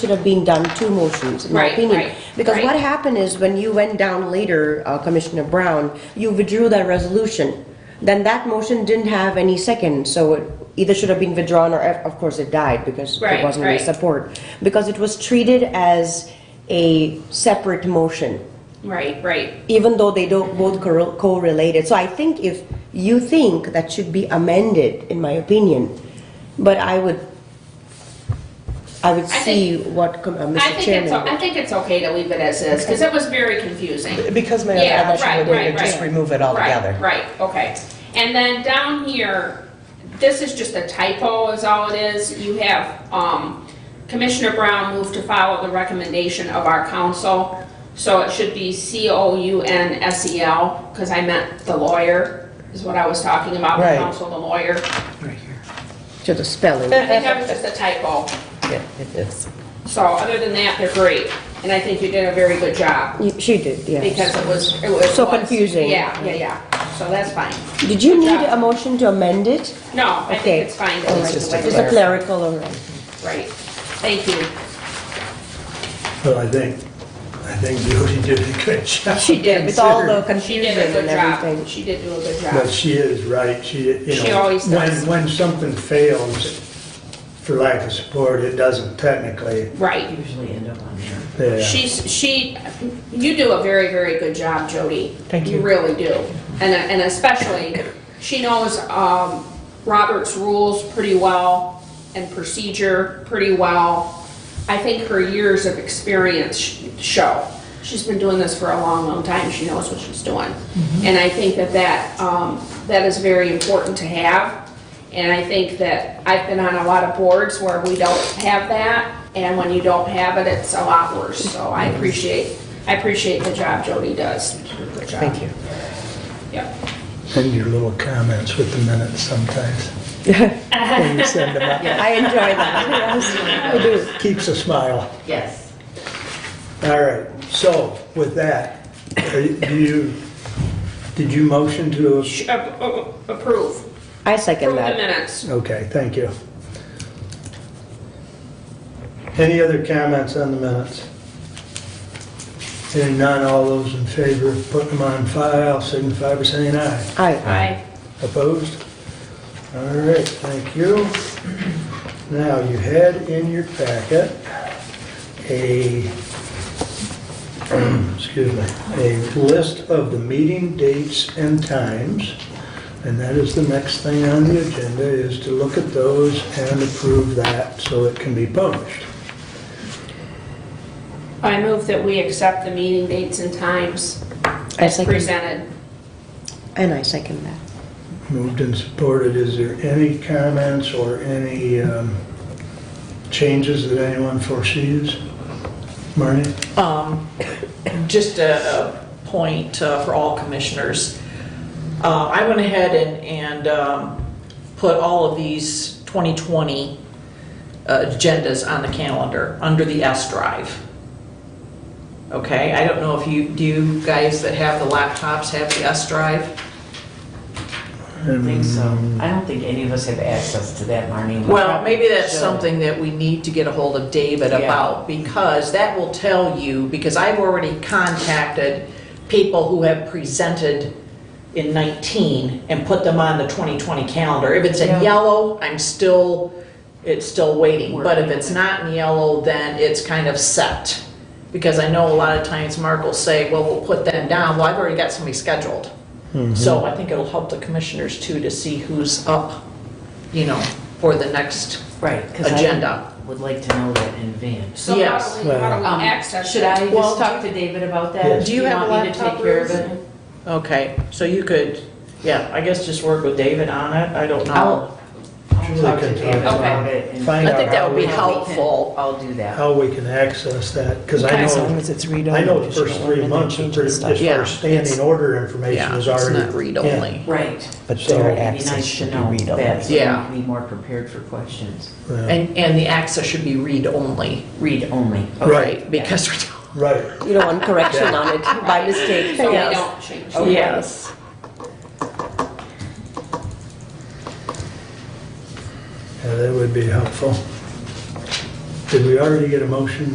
should have been done two motions, in my Right, opinion. right, Because what right. happened is when you went down later, uh, Commissioner Brown, you withdrew that resolution. Then that motion didn't have any second, so it either should have been withdrawn or, of course, it died because there Right, wasn't any right. support. Because it was treated as a separate motion, Right, right. even though they don't both correl- correlated. So I think if you think that should be amended, in my opinion, but I would, I would I think- see what com- uh, I Mr. think it's, o- I Chairman. think it's okay to leave it as is, because it was very confusing. Because Mayor, Yeah, I'm not sure right, we're doing right, it, just right. remove it altogether. Right, right, okay. And then down here, this is just a typo is all it is. You have, um, Commissioner Brown moved to follow the recommendation of our council. So it should be C-O-U-N-S-E-L, because E I meant the lawyer, is what I was talking about, the Right. council, the lawyer. To the spelling. I think that was just a typo. Yeah, it is. So other than that, they're great. And I think you did a very good job. You- She did, because yes. it was, it was. So confusing. Yeah, yeah, yeah, so that's fine. Did you need job. a motion to amend it? No, I Okay. think it's fine, at least just the a way Just it a is. clerical or? Right, thank you. Well, I think, I think Judy did a good job. She did, with all the She confusion did a good and job, everything. she did do a good But job. she is right, she, you know. She always does. When, when something fails for lack of support, it doesn't technically, Right, usually end up on there. yeah. she's, she, you do a very, very good job, Jody. Thank You you. really do, and, uh, and especially, she knows, um, Robert's rules pretty well and procedure pretty well. I think her years of experience sh- show. She's been doing this for a long, long time. She knows what she's doing. And I think that that, um, that is very important to have. And I think that I've been on a lot of boards where we don't have that, and when you don't have it, it's a lot worse. So I appreciate, I appreciate the job Jody does. Good job. Thank you. Yep. And your little comments with the minutes sometimes. When you send them out, I enjoy that, yes, we do. keeps a smile. Yes. All right, so with that, are you- do you, did you motion to, Sh- uh, uh, Approve, I second approve the that. minutes. okay, thank you. Any other comments on the minutes? Hearing none, all those in favor of putting them on file, signify by saying aye. Aye. Aye. Opposed? All right, thank you. Now, you had in your packet a, excuse me, a list of the meeting dates and times, and that is the next thing on the agenda, is to look at those and approve that so it can be published. I move that we accept the meeting dates and times as second. presented. And I second that. Moved and supported, is there any comments or any um, changes that anyone foresees? Marnie? Um, Just a a point uh, for all commissioners. Uh, I went ahead and, and um, put all of these 2020 agendas on the calendar, under the S drive. Okay, I don't know if you, do you guys that have the laptops have the S drive? I don't think so. I don't think any of us have access to that, Marnie. We Well, maybe that's should. something that we need to get a hold of David Yeah. about, because that will tell you, because I've already contacted people who have presented in 19 and put them on the 2020 calendar. If it's in Yeah. yellow, I'm still, it's still waiting, but if Working. it's not in yellow, then it's kind of set. Because I know a lot of times Mark will say, well, we'll put them down, well, I've already got somebody scheduled. Mm-hmm. Mm-hmm. So I think it'll help the commissioners too to see who's up, you know, for the next Right, because agenda. I would like to know that in advance. So how Yes. do we, how do Um, we access? Should it? I Well, just talk to David about Yes. that? Do you have want me to laptop take care of rooms? it? Okay, so you could, yeah, I guess just work with David on it, I don't know. I'll, I'll Julie talk to can David talk about it. and- Find I think out that how would be we, how we can- helpful. I'll do that. how we can access that, because I As long know, as it's I read-only. know the just first don't three amend and months, change is the pretty- as stuff. Yeah, far as standing it's- order information Yeah, is it's already. not read-only. Right. But So their it'd be It'd be access nice should to be know that, read-only. so we Yeah. can be more prepared for questions. in. Yeah, And, and the access should be read-only. Read only. Right. Because we're. Right, You don't want correction on it by mistake. So we Yes. don't change. Okay. Yes. yeah, that would be helpful. Did we already get a motion